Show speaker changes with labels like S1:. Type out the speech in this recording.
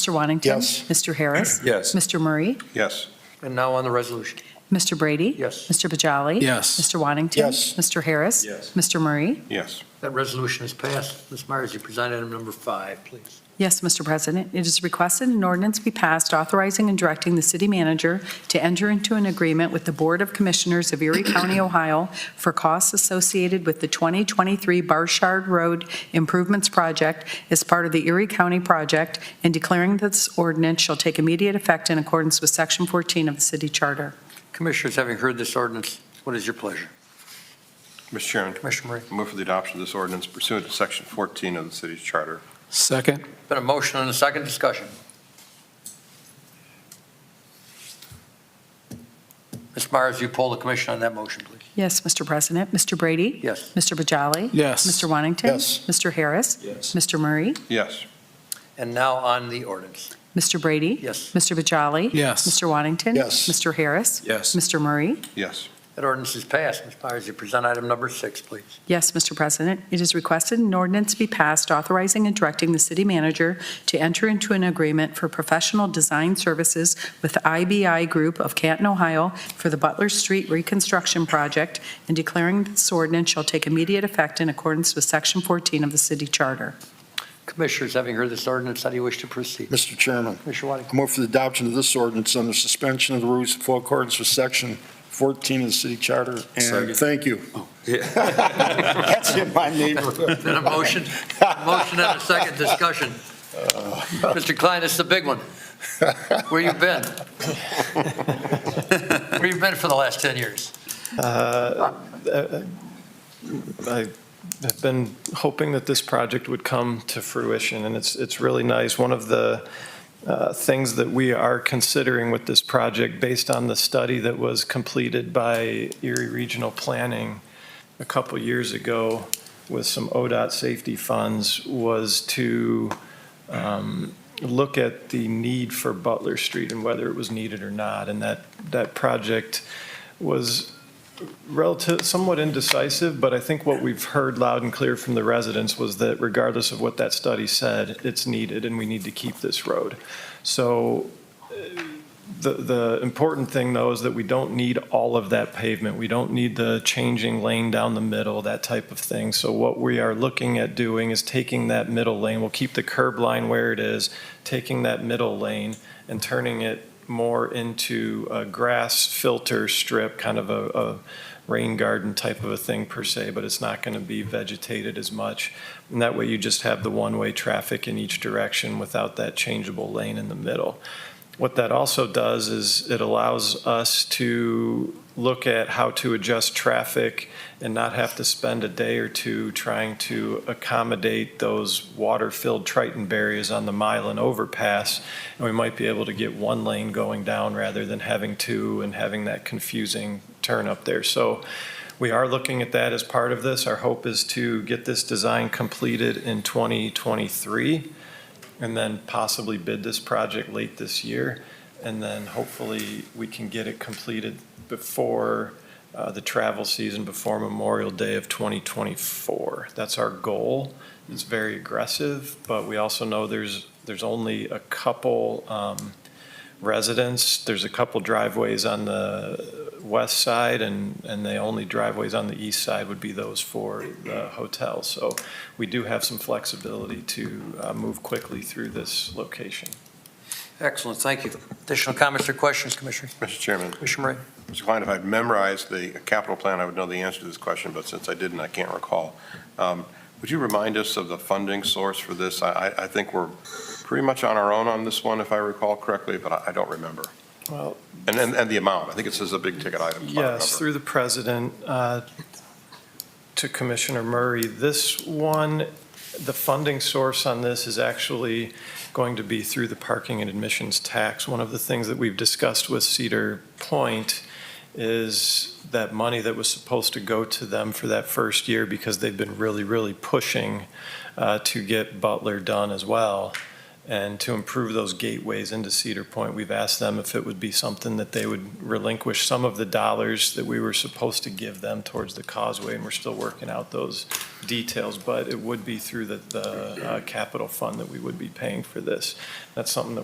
S1: Mr. Wantington?
S2: Yes.
S1: Mr. Harris?
S3: Yes.
S1: Mr. Murray?
S3: Yes.
S4: And now on the resolution.
S1: Mr. Brady?
S4: Yes.
S1: Mr. Bajali?
S5: Yes.
S1: Mr. Wantington?
S2: Yes.
S1: Mr. Harris?
S3: Yes.
S1: Mr. Murray?
S3: Yes.
S4: That resolution is passed. Ms. Myers, you present item number five, please.
S1: Yes, Mr. President. It is requested an ordinance be passed authorizing and directing the city manager to enter into an agreement with the Board of Commissioners of Erie County, Ohio for costs associated with the 2023 Barshard Road Improvements Project as part of the Erie County project and declaring that this ordinance shall take immediate effect in accordance with Section 14 of the city charter.
S4: Commissioners, having heard this ordinance, what is your pleasure?
S3: Mr. Chairman,
S4: Commissioner Murray.
S3: I move for the adoption of this ordinance pursuant to Section 14 of the city's charter.
S5: Second.
S4: Been a motion and a second discussion. Ms. Myers, you poll the commission on that motion, please.
S1: Yes, Mr. President. Mr. Brady?
S4: Yes.
S1: Mr. Bajali?
S5: Yes.
S1: Mr. Wantington?
S2: Yes.
S1: Mr. Harris?
S5: Yes.
S1: Mr. Murray?
S3: Yes.
S4: And now on the ordinance.
S1: Mr. Brady?
S4: Yes.
S1: Mr. Bajali?
S5: Yes.
S1: Mr. Wantington?
S2: Yes.
S1: Mr. Harris?
S5: Yes.
S1: Mr. Murray?
S3: Yes.
S4: That ordinance is passed. Ms. Myers, you present item number six, please.
S1: Yes, Mr. President. It is requested an ordinance be passed authorizing and directing the city manager to enter into an agreement for professional design services with IBI Group of Canton, Ohio for the Butler Street Reconstruction Project and declaring this ordinance shall take immediate effect in accordance with Section 14 of the city charter.
S4: Commissioners, having heard this ordinance, how do you wish to proceed?
S2: Mr. Chairman,
S4: Commissioner Whiting.
S2: I move for the adoption of this ordinance under suspension of the rules in full accordance with Section 14 of the city charter. And
S3: Second.
S2: thank you. That's in my neighborhood.
S4: Been a motion, a motion and a second discussion. Mr. Klein, this is the big one. Where you been? Where you been for the last 10 years?
S6: Uh, uh, I have been hoping that this project would come to fruition, and it's, it's really nice. One of the uh, things that we are considering with this project, based on the study that was completed by Erie Regional Planning a couple years ago with some ODOT safety funds, was to um, look at the need for Butler Street and whether it was needed or not. And that, that project was relative, somewhat indecisive, but I think what we've heard loud and clear from the residents was that regardless of what that study said, it's needed and we need to keep this road. So uh, the, the important thing though is that we don't need all of that pavement. We don't need the changing lane down the middle, that type of thing. So what we are looking at doing is taking that middle lane, we'll keep the curb line where it is, taking that middle lane and turning it more into a grass filter strip, kind of a, a rain garden type of a thing per se, but it's not going to be vegetated as much. And that way you just have the one-way traffic in each direction without that changeable lane in the middle. What that also does is it allows us to look at how to adjust traffic and not have to spend a day or two trying to accommodate those water-filled Triton barriers on the Mylan overpass and we might be able to get one lane going down rather than having two and having that confusing turn up there. So we are looking at that as part of this. Our hope is to get this design completed in 2023 and then possibly bid this project late this year. And then hopefully we can get it completed before uh, the travel season, before Memorial Day of 2024. That's our goal. It's very aggressive, but we also know there's, there's only a couple um, residents. There's a couple driveways on the west side, and, and the only driveways on the east side would be those for the hotel. So we do have some flexibility to uh, move quickly through this location.
S4: Excellent, thank you. Additional comments or questions, Commissioner?
S3: Mr. Chairman,
S4: Commissioner Murray?
S3: Mr. Klein, if I'd memorized the capital plan, I would know the answer to this question, but since I didn't, I can't recall. Um, Would you remind us of the funding source for this? I, I- I think we're pretty much on our own on this one, if I recall correctly, but I- I don't remember.
S6: Well,
S3: And, and and the amount, I think it says a big ticket item. if I
S6: Yes,
S3: remember.
S6: through the president, uh, to Commissioner Murray, this one, the funding source on this is actually going to be through the parking and admissions tax. One of the things that we've discussed with Cedar Point is that money that was supposed to go to them for that first year, because they've been really, really pushing uh, to get Butler done as well, and to improve those gateways into Cedar Point. We've asked them if it would be something that they would relinquish some of the dollars that we were supposed to give them towards the causeway, and we're still working out those details, but it would be through the, the uh, capital fund that we would be paying for this. That's something that